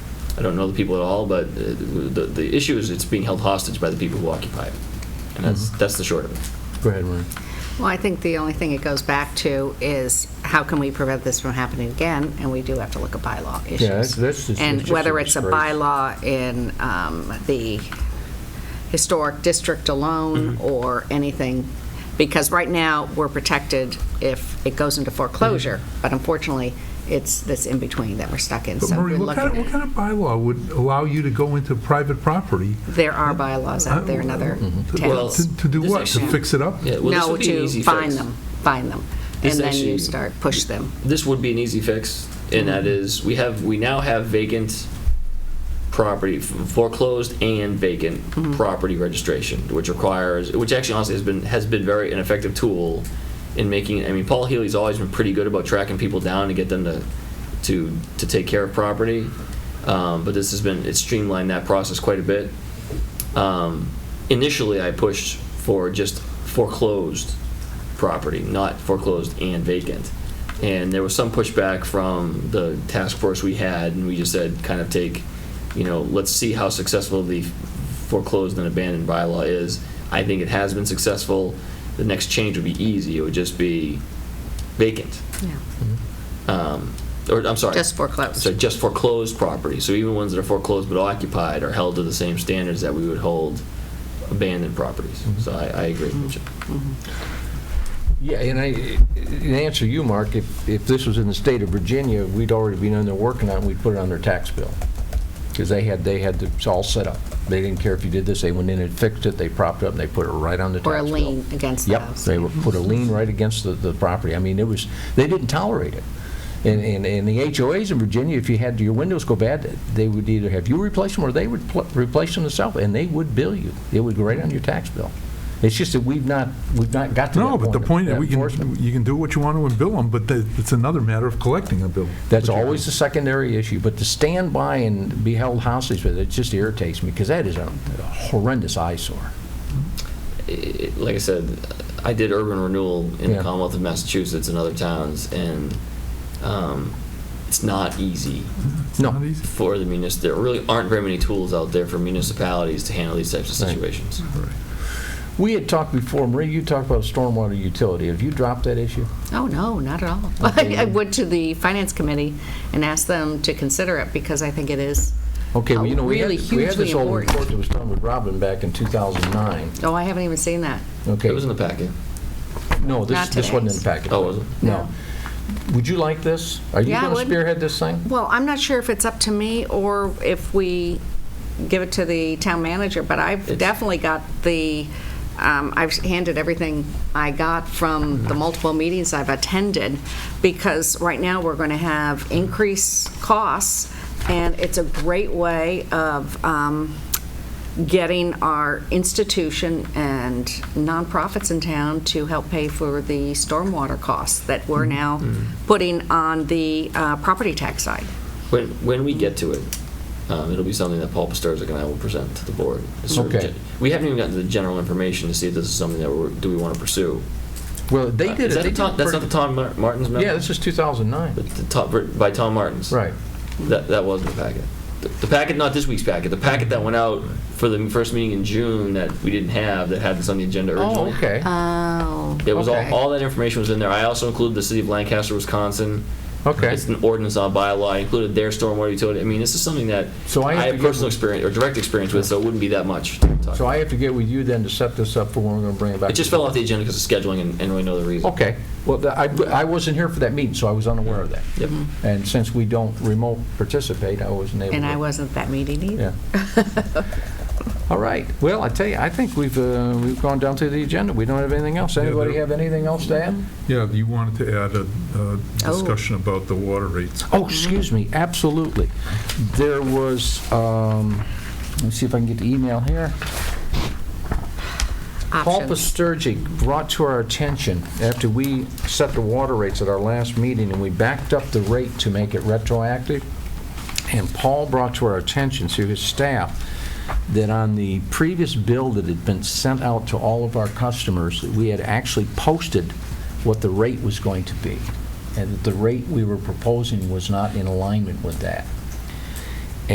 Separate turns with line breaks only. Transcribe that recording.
I don't know the people at all, but uh, the, the issue is it's being held hostage by the people who occupy it. And that's, that's the short of it.
Go ahead, Maureen.
Well, I think the only thing it goes back to is how can we prevent this from happening again? And we do have to look at bylaw issues.
that's- that's just-
And
it's just a
whether it's a
disgrace.
bylaw in um, the historic district alone
Mm-hmm.
or anything, because right now, we're protected if it goes into foreclosure,
Mm-hmm.
but unfortunately, it's this in-between that we're stuck in.
But
So
Maureen,
we're
what kind of, what
looking,
kind of bylaw would allow you to go into private property?
there are bylaws out there in other
to-
Mm-hmm.
Well,
towns.
To to do
this
what? To
actually-
fix it up?
Yeah, well, this
No,
would be an
to
easy
find
fix.
them, find them.
This
And then
actually-
you start, push them.
This would be an easy fix, and that
Mm-hmm.
is, we have, we now have vacant property, foreclosed and vacant
Mm-hmm.
property registration, which requires, which actually honestly has been, has been very an effective tool in making, I mean, Paul Healy's always been pretty good about tracking people down to get them to, to, to take care of property. Um, but this has been, it's streamlined that process quite a bit. Um, initially, I pushed for just foreclosed property, not foreclosed and vacant. And there was some pushback from the task force we had, and we just said, kind of take, you know, let's see how successful the foreclosed and abandoned bylaw is. I think it has been successful. The next change would be easy. It would just be vacant.
Yeah.
Um, Or, I'm sorry.
Just foreclosed.
So just foreclosed property. So even ones that are foreclosed but occupied are held to the same standards that we would hold abandoned properties.
Mm-hmm.
So I, I agree with you.
Yeah, and I, in answer to you, Mark, if, if this was in the state of Virginia, we'd already be on there working on it, and we'd put it on their tax bill. Because they had, they had it all set up. They didn't care if you did this, they went in and fixed it, they propped it up, and they put it right on the tax bill.
Or a lien against the
Yep,
house.
they would put a lien right against the, the property. I mean, it was, they didn't tolerate it. And, and, and the HOAs in Virginia, if you had your windows go bad, they would either have you replace them or they would pl- replace them themselves, and they would bill you. It would go right on your tax bill. It's just that we've not, we've not got to that
No,
point.
but the
of
point, that we
enforcement.
can, you can do what you want to and bill them, but the- it's another matter of collecting a bill.
That's
Which you-
always the secondary issue, but to stand by and be held hostage with it, it just irritates me, because that is a a horrendous eyesore.
it- like I said, I did urban renewal in
Yeah.
the Commonwealth of Massachusetts and other towns, and um, it's not easy
It's
No.
not easy.
for the munis. There really aren't very many tools out there for municipalities to handle these types of
Right.
situations.
All right.
We had talked before, Marie, you talked about stormwater utility. Have you dropped that issue?
Oh, no, not at all. I went to the finance committee and asked them to consider it because I think it is.
Okay, well,
uh,
you know, we had,
really
we had this
hugely
old
important.
report that was done with Robin back in 2009.
Oh, I haven't even seen that.
Okay,
It was in the packet.
no, this,
Not
this wasn't in the
today's.
packet.
Oh, was it?
No. Would you like this? Are you
Yeah, I
going to
would.
spearhead this thing?
Well, I'm not sure if it's up to me or if we give it to the town manager, but I've
It's-
definitely got the, um, I've handed everything I got from the multiple meetings I've attended, because right now, we're going to have increased costs, and it's a great way of um, getting our institution and nonprofits in town to help pay for the stormwater costs that we're now putting on the uh, property tax side.
When, when we get to it, um, it'll be something that Paul Pastorzik and I will present to the board. It's sort of
Okay.
gen- We haven't even gotten to the general information to see if this is something that we're, do we want to pursue.
Well, they
Uh,
did it.
is that
they
the
did
Tom-
it
That's
pretty-
not the Tom Mar- Martin's memo?
Yeah, this is 2009.
The- the Tom- By Tom Martin's?
Right.
That, that was the packet. The- The packet, not this week's packet, the packet that went out for the first meeting in June that we didn't have, that had this on the agenda
Oh,
originally.
okay.
Oh.
It was all,
okay.
all that information was in there. I also included the city of Lancaster, Wisconsin.
Okay.
It's an ordinance on bylaw. I included their stormwater utility. I mean, this is something that
So I have
I
to
have
get-
personal experience, or direct experience with, so it wouldn't be that much. to talk
So
about.
I have to get with you then to set this up for when we're going to bring it back.
It just fell off the agenda because of scheduling and, and really no other reason.
Okay. Well, the- I, I wasn't here for that meeting, so I was unaware of that.
Yep.
And since we don't remote participate, I wasn't able to.
And I wasn't at that meeting either.
Yeah. All right. Well, I tell you, I think we've, uh, we've gone down to the agenda. We don't have anything else.
Yeah,
Anybody
there- Mm-hmm.
have anything else to add?
Yeah, you wanted to add a uh, discussion about the water rates.
Oh, excuse me, absolutely. There was, um, let me see if I can get the email here. Paul
Options.
Pasturgic brought to our attention, after we set the water rates at our last meeting, and we backed up the rate to make it retroactive, and Paul brought to our attention through his staff that on the previous bill that had been sent out to all of our customers, that we had actually posted what the rate was going to be, and that the rate we were proposing was not in alignment with that.